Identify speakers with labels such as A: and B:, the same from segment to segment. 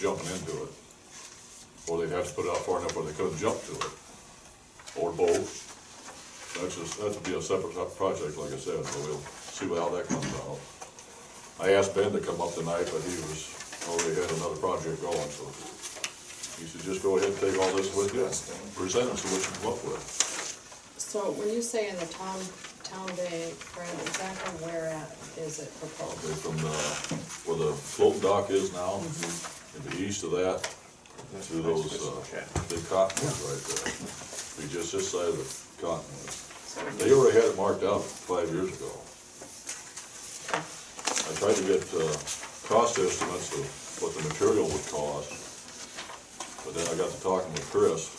A: jumping into it. Or they'd have to put it out far enough where they couldn't jump to it, or both. That's just, that'd be a separate type of project, like I said, so we'll see how that comes out. I asked Ben to come up tonight, but he was, already had another project going, so he said, just go ahead and take all this with you, and present us with what you come up with.
B: So when you say in the town, town day, Brad, exactly where at is it proposed?
A: Probably uh, from the, where the float dock is now, and the east of that, to those, uh, big cottonwoods right there. Be just this side of the cottonwoods.
B: So
A: They already had it marked out five years ago. I tried to get, uh, cost estimates of what the material would cost. But then I got to talking with Chris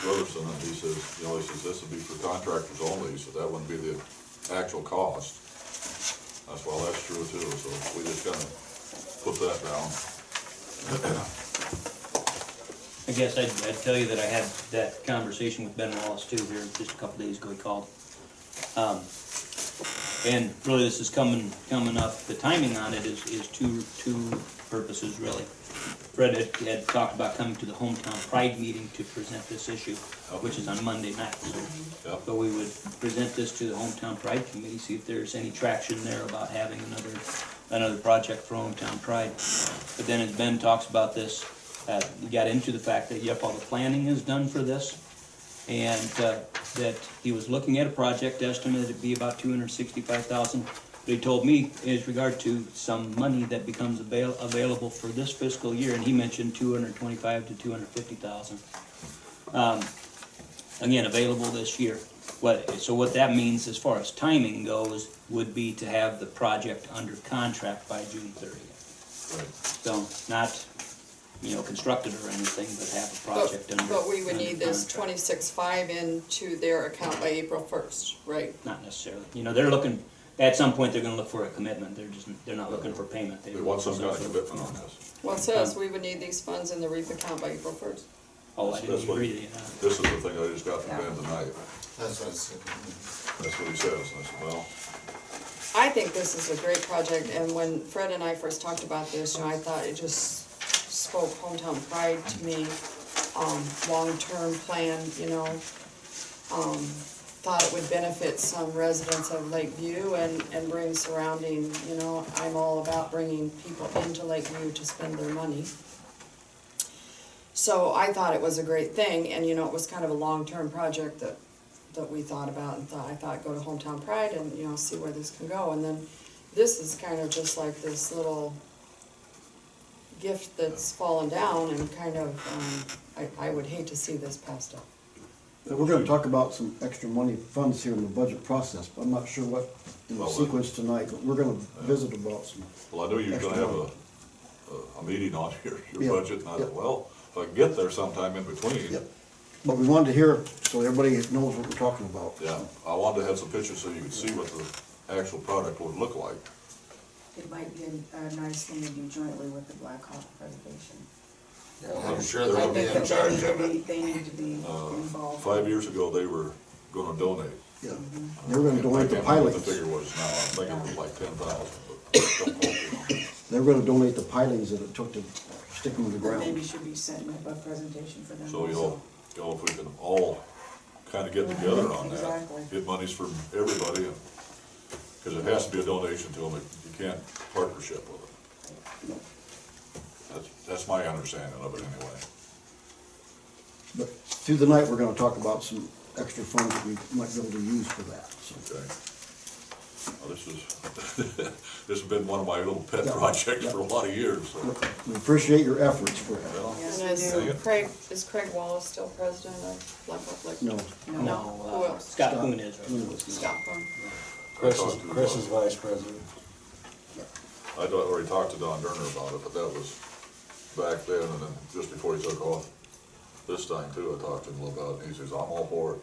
A: Robertson, and he says, you know, he says, this would be for contractors only, so that wouldn't be the actual cost. That's, well, that's true too, so we just kinda put that down.
C: I guess I'd, I'd tell you that I had that conversation with Ben Wallace too here just a couple days ago, he called. Um, and really this is coming, coming up, the timing on it is, is two, two purposes really. Fred had, had talked about coming to the hometown pride meeting to present this issue, which is on Monday night, so.
A: Yep.
C: But we would present this to the hometown pride committee, see if there's any traction there about having another, another project for hometown pride. But then as Ben talks about this, uh, he got into the fact that, yep, all the planning is done for this. And, uh, that he was looking at a project estimated to be about two hundred sixty-five thousand. But he told me is regard to some money that becomes avail- available for this fiscal year, and he mentioned two hundred twenty-five to two hundred fifty thousand again, available this year. What, so what that means as far as timing goes, would be to have the project under contract by June thirtieth. So not, you know, constructed or anything, but have a
B: But,
C: project under.
B: but we would
C: under
B: need this
C: contract.
B: twenty-six five into their account by April first, right?
C: Not necessarily, you know, they're looking, at some point, they're gonna look for a commitment, they're just, they're not looking for payment.
A: They want some
C: looking
A: kind of
C: for-
A: commitment on this.
B: Well, it says
C: Um,
B: we would need these funds in the REAP account by April first.
C: Oh, I
A: That's
C: didn't
A: what-
C: agree to you, huh?
A: This is the thing I just got from Ben tonight.
D: That's what I said.
A: That's what he says, and I said, well,
B: I think this is a great project, and when Fred and I first talked about this, you know, I thought it just spoke hometown pride to me, um, long-term plan, you know. Um, thought it would benefit some residents of Lakeview and, and bring surrounding, you know, I'm all about bringing people into Lakeview to spend their money. So I thought it was a great thing, and you know, it was kind of a long-term project that that we thought about and thought, I thought go to hometown pride and, you know, see where this can go. And then this is kind of just like this little gift that's fallen down and kind of, um, I, I would hate to see this passed up.
E: We're gonna talk about some extra money funds here in the budget process, but I'm not sure what in the
A: Well, we-
E: sequence tonight, but we're gonna visit about some.
A: Well, I knew you were gonna have a, a, a meeting on your,
E: Yeah,
A: your budget, and I
E: yeah.
A: thought, well, if I can get there sometime in between.
E: Yep. But we wanted to hear, so everybody knows what we're talking about.
A: Yeah, I wanted to have some pictures so you could see what the actual product would look like.
F: It might be a, a nice thing to do jointly with the Black Hawk Preservation.
D: I'm sure they'll be in charge of it. Uh,
F: They need to be involved.
A: Five years ago, they were gonna donate.
E: Yeah. They were gonna donate the
A: I can't remember what
E: pilings.
A: The figure was now, I think it was like ten thousand, but don't quote me on it.
E: They were gonna donate the pilings that it took to stick them in the
F: But maybe
E: ground.
F: should be setting up a presentation for them
A: So
F: also.
A: you'll, you know, if we can all kinda get together on
F: Exactly.
A: that, get monies from everybody, and, cause it has to be a donation to them, you can't partnership with them. That's, that's my understanding of it anyway.
E: But through the night, we're gonna talk about some extra funds that we might be able to use for that, so.
A: Okay. Well, this is, this has been one of my little pet
E: Yeah,
A: projects
E: yeah.
A: for a lot of years, so.
E: We appreciate your efforts for that.
A: well,
F: Yes,
B: And is
F: we do.
A: Yeah.
B: Craig, is Craig Wallace still president of Black Hawk Lake?
E: No,
B: No, who
C: No, uh,
B: else?
C: Scott Coon is.
B: Scott Thorne.
D: Chris is, Chris is vice president.
A: I thought- already talked to Don Durner about it, but that was back then, and then just before he took off this time too, I talked to him about it, and he says, I'm all for it.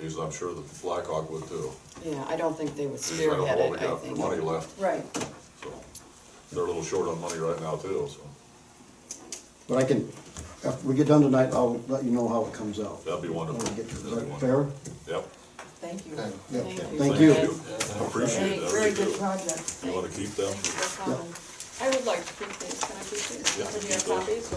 A: He says, I'm sure the Blackhawk would too.
B: Yeah, I don't think they would
A: He says, I don't know
B: spearhead
A: what we
B: it, I
A: got for money
B: think.
A: left,
F: Right,
A: so. They're a little short on money right now too, so
E: but I can, after we get done tonight, I'll let you know how it comes out.
A: that'd be
E: When
A: wonderful.
E: we get to, is
A: That'd be
E: that
A: wonderful.
E: fair?
A: Yep.
F: thank you.
D: Okay.
E: Yeah.
B: Thank you.
E: Thank you.
A: I Appreciate that.
F: Very good project.
A: You wanna keep them?
B: No problem. I would like to keep these, can I keep these?
A: Yeah,
B: Do you
A: keep
B: have
A: those.
B: copies?